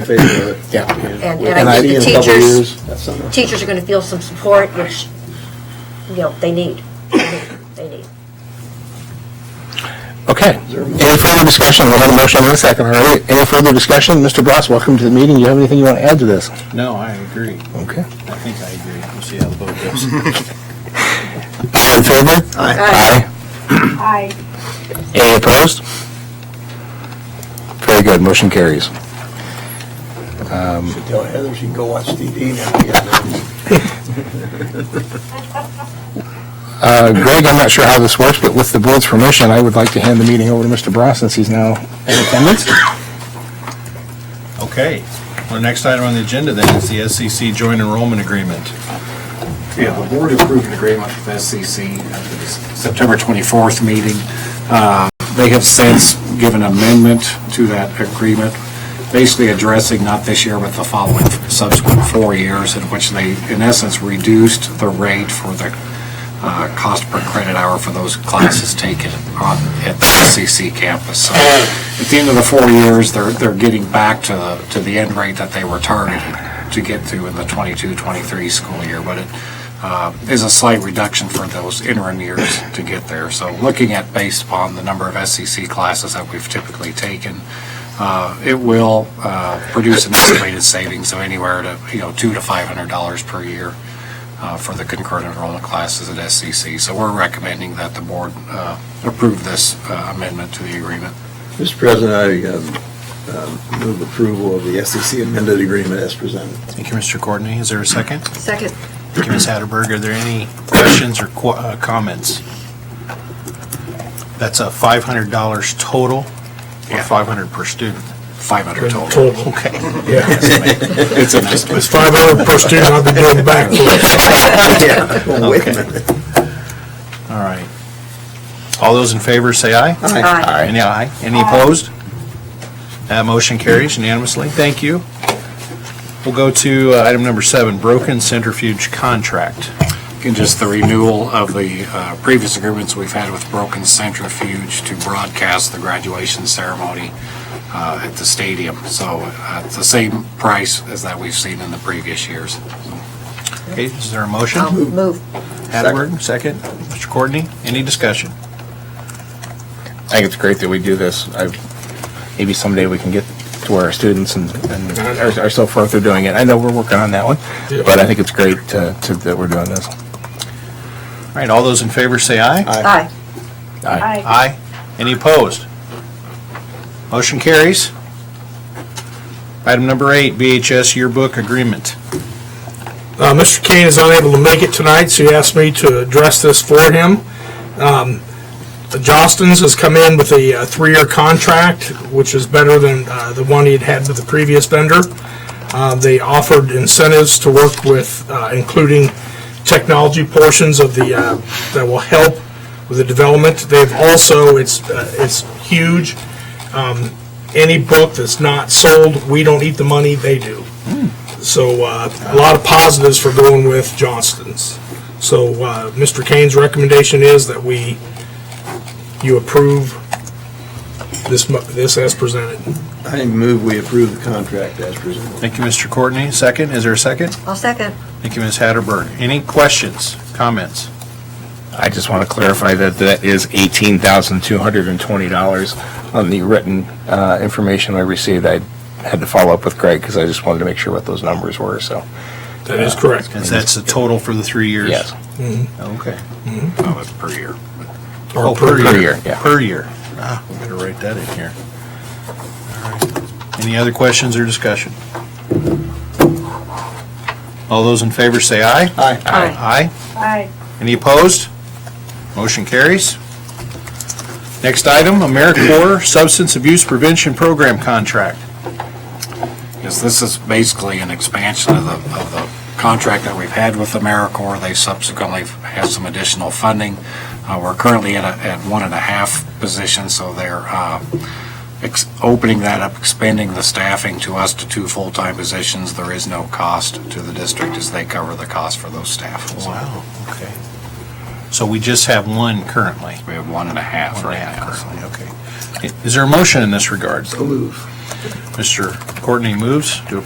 favor of it. Yeah. And, And and I I see think the in a couple teachers, years, that's something. teachers are going to feel some support, which, you know, they need. They need. They need. Okay. Any further discussion? We'll have a motion in a second, all right? Any further discussion? Mr. Bloss, welcome to the meeting. Do you have anything you want to add to this? No, I agree. Okay. I think I agree. We'll see how the vote goes. All in favor? Aye. Aye. Any opposed? Very good, motion carries. Um, Should tell Heather she can go watch TV now. Uh, Greg, I'm not sure how this works, but with the board's permission, I would like to hand the meeting over to Mr. Bloss since he's now in attendance. Okay. Well, the next item on the agenda then is the SCC joint enrollment agreement. Yeah, the board approved an agreement with SCC at the September 24th meeting. Uh, They have since given amendment to that agreement, basically addressing not this year, but the following subsequent four years, in which they, in essence, reduced the rate for the uh, cost per credit hour for those classes taken on, at the SCC campus. So at the end of the four years, they're, they're getting back to, the- to the end rate that they were targeted to get to in the 22, 23 school year, but it uh, is a slight reduction for those interim years to get there. So looking at, based upon the number of SCC classes that we've typically taken, uh, it will uh, produce an estimated savings of anywhere to, you know, two to $500 per year uh, for the concurrent enrollment classes at SCC. So we're recommending that the board uh, approve this uh, amendment to the agreement. Mr. President, I um, um, move approval of the SEC amended agreement as presented. Thank you, Mr. Courtney. Is there a second? Second. Thank you, Ms. Hatterberg. Are there any questions or qu- uh, comments? That's a $500 total or Yeah. 500 per student? 500 total. Okay. It's an estimate. It's five hundred per student, I'll be doing backflips. Oh, wait a minute. All right. All those in favor say aye. Aye. Any aye? Any opposed? That motion carries unanimously. Thank you. We'll go to uh, item number seven, broken centrifuge contract. And just the renewal of the uh, previous agreements we've had with Broken Centrifuge to broadcast the graduation ceremony uh, at the stadium. So uh, it's the same price as that we've seen in the previous years. Okay, is there a motion? I'll move. Hadberg, second. Mr. Courtney, any discussion? I think it's great that we do this. I- Maybe someday we can get to where our students and and are are so far through doing it. I know we're working on that one, but I think it's great uh, to- that we're doing this. All right, all those in favor say aye. Aye. Aye. Aye. Any opposed? Motion carries. Item number eight, BHS yearbook agreement. Uh, Mr. Kane is unable to make it tonight, so he asked me to address this for him. Um, the Johnston's has come in with a uh, three-year contract, which is better than, uh, the one he had had with the previous vendor. Uh, they offered incentives to work with, uh, including technology portions of the, uh, that will help with the development. They've also, it's, uh, it's huge. Um, any book that's not sold, we don't eat the money, they do. So uh, a lot of positives for going with Johnston's. So uh, Mr. Kane's recommendation is that we, you approve this, mo- this as presented. I move we approve the contract as presented. Thank you, Mr. Courtney. Second, is there a second? I'll second. Thank you, Ms. Hatterberg. Any questions, comments? I just want to clarify that that is $18,220 on the written uh, information I received. I had to follow up with Greg because I just wanted to make sure what those numbers were, so, That is correct. Because that's the total for the three years? yes. Okay. That was uh, per year. Or Oh, per- per year, yeah. Per year. Ah, we better write that in here. All right. Any other questions or discussion? All those in favor say aye. Aye. Aye. Aye. Any opposed? Motion carries. Next item, AmeriCorps Substance Abuse Prevention Program Contract. Yes, this is basically an expansion of the, of the contract that we've had with AmeriCorps. They subsequently have some additional funding. Uh, we're currently at a, at one and a half positions, so they're, uh, ex- opening that up, expanding the staffing to us to two full-time positions. There is no cost to the district as they cover the cost for those staff. So Wow, okay. So we just have one currently? We have one and a half One and a right half now. currently, okay. Is there a motion in this regard? So move. Mr. Courtney moves to